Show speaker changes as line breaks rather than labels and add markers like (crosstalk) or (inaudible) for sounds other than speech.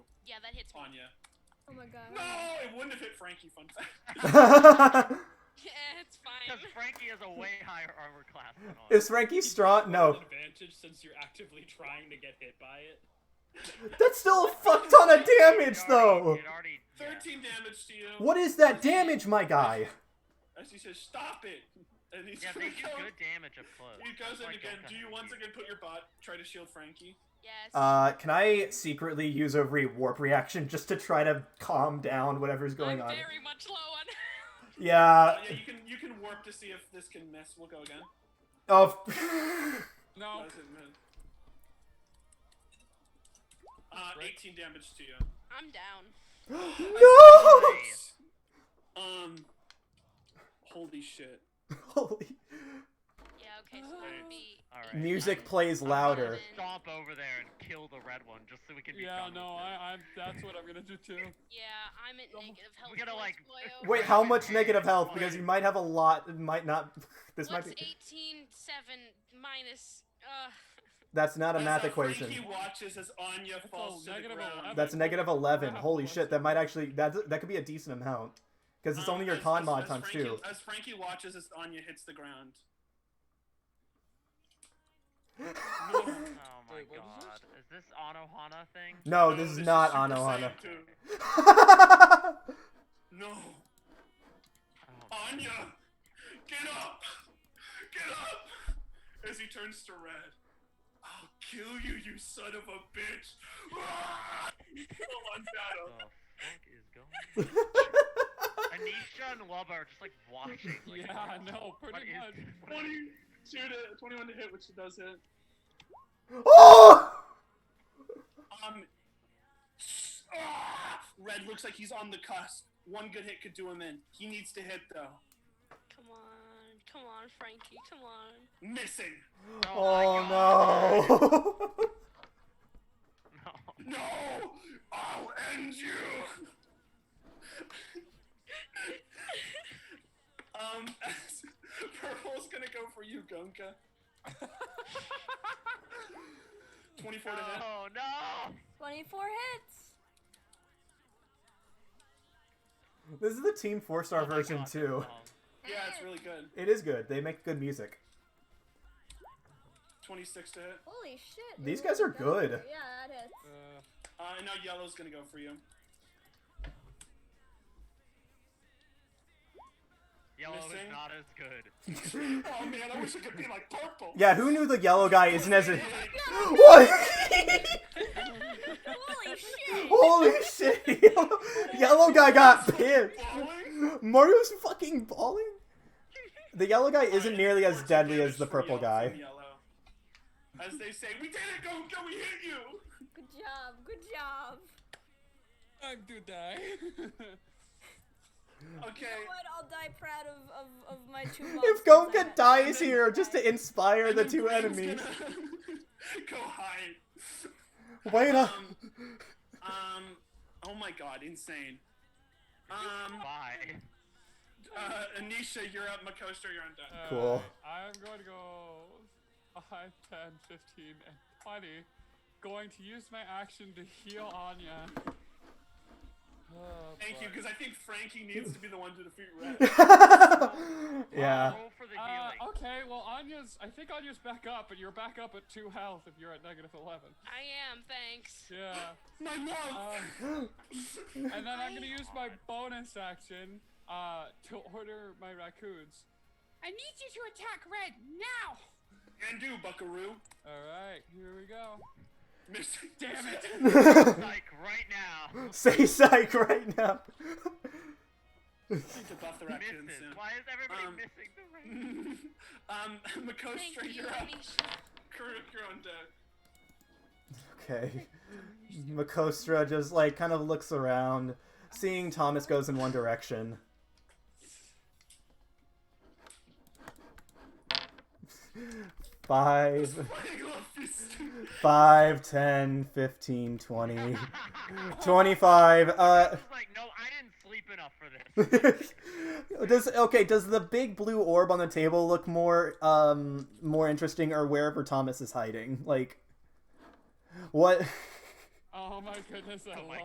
Yeah, that hits me.
Anya.
Oh my god.
No, it wouldn't have hit Frankie. Fun
(laughs)
fact.
(laughs) Yeah, it's fine.
Because Frankie is
(laughs)
a way higher armor class than us.
(laughs) Is Frankie strong? No.
An advantage since you're actively trying to get hit by it.
That's still a fuck ton of damage,
It already-
though.
It already.
(laughs)
yeah.
Thirteen damage to you.
What is that damage, my guy?
As he says, "Stop it," and he's
Yeah,
gonna
they do
go-
good damage up close.
He goes in
Like,
again.
don't
Do you
come
once
here.
again put your bot? Try to shield Frankie.
Yes.
Uh, can I secretly use a re warp reaction just to try to calm down whatever's going
I'm
on?
very much low on (laughs) health.
Yeah.
Uh, yeah, you can you can warp to see if this can miss. We'll go again.
Of.
No.
Doesn't miss. Uh, 18 damage to you.
I'm down.
(laughs) no!
Um. Holy shit.
Holy.
Yeah, okay, so that would be.
All right,
Music
I'm-
plays louder.
Stomp over there and kill the red one just so we can be
Yeah,
done with (laughs)
no,
this.
I, I'm. That's what I'm gonna do too.
Yeah, I'm at negative health.
We gotta,
points,
(laughs)
like-
boyo.
Wait, how much negative health? Because you might have a lot. It might not. (laughs) This
What's
might be.
18, 7 minus. Uh,
That's not a
As,
math
uh,
equation.
Frankie watches as Anya
That's
falls to
a
the
negative
ground.
11.
That's negative 11.
Yeah,
Holy
plus
shit, that might actually that that could be a decent amount because it's
Um,
only your
as-
con
as-
mod
as
times
Frankie,
two.
As Frankie watches as Anya hits the ground.
Oh my
Wait, what was
god.
this?
Is this Anohana thing?
No, Oh, this is not
Super
Anohana.
Saiyan 2. No.
Oh,
Anya! Get up! Get up! As he turns to red. I'll kill you, you son of a bitch! (laughs) Full on
what
(laughs)
battle.
the fuck is going
(laughs)
on? Anisha and Lubba are just like watching. Like,
(laughs) yeah, no,
what
pretty
is
much.
this? What is-
22 to 21 to hit, which it does hit.
(laughs) oh!
Um. ah! Red looks like he's on the cusp. One good hit could do him in. He needs to hit though.
come on. Come on, Frankie. Come on.
Missing.
Oh, my God.
Oh no!
(laughs)
No!
No.
I'll end you! um, (laughs) Purple's gonna go for you, Gunka. 24 to hit.
Oh no!
24
(laughs)
hits.
this is the Team Four Star
Oh my
version
God,
too.
that's long.
Yeah, it's really good.
It is good. They make good music. (laughs)
26 to hit.
Holy shit.
These
dude,
guys are
that's
good.
great. Yeah, that hits.
Uh,
Uh, and now Yellow's gonna go for you.
Yellow is
Missing.
not as
(laughs)
good.
oh man, I wish it could be like Purple!
Yeah, who knew the yellow guy isn't as a what? (laughs)
Holy shit.
Holy shit! (laughs) Yellow, yellow guy got pinned.
Falling?
(laughs) Mario's fucking balling. The yellow guy isn't nearly as
14
deadly
damage
as the
from
purple
Yellow-
guy.
from Yellow. As they say, we did it, Gunka, we hit you!
Good job. Good job.
I'm to die. (laughs)
You
Okay,
know what? I'll die proud of, of, of my two monsters
(laughs) If
I
Gonka
had.
dies here just to inspire the two
Green's
enemies,
gonna- (laughs) go
(laughs)
hide.
wait up.
Um, um, oh my god, insane. Um,
Bye.
uh, Anisha, you're up. Makostra, you're undone.
Cool.
Uh, I'm going to go 5, 10, 15, and 20. Going to use my action to heal Anya. Oh,
Thank you,
boy.
because I think Frankie needs to be the one to defeat Red.
(laughs) (laughs) yeah. (laughs)
Roll for the healing.
Uh, okay, well, Anya's. I think Anya's back up, and you're back up at 2 health if you're at negative 11.
I am, thanks.
Yeah.
my love!
Um, and then I'm going to use my bonus action uh, to order my raccoons. I need you to attack Red now!
and do, buckaroo.
Alright, here we go.
Miss-
Damn it!
Like right now.
Say psych right now. (laughs)
Need to buff the raccoon
Misses.
soon.
Why is everybody
Um,
missing the red?
(laughs) um,
Thank
Makostra,
you,
you're up. (laughs)
Anisha.
Kuruk, you're on deck. (laughs)
Okay. Makostra just like kind of looks around, seeing Thomas goes in one direction. (laughs) Five,
I love this.
five, ten, fifteen, twenty, twenty-five. Uh, (laughs)
This is like, no, I didn't sleep enough for this.
does okay? Does the big blue orb on the table look more um more interesting, or wherever Thomas is hiding? Like, what?
Oh my goodness, I
Oh my
love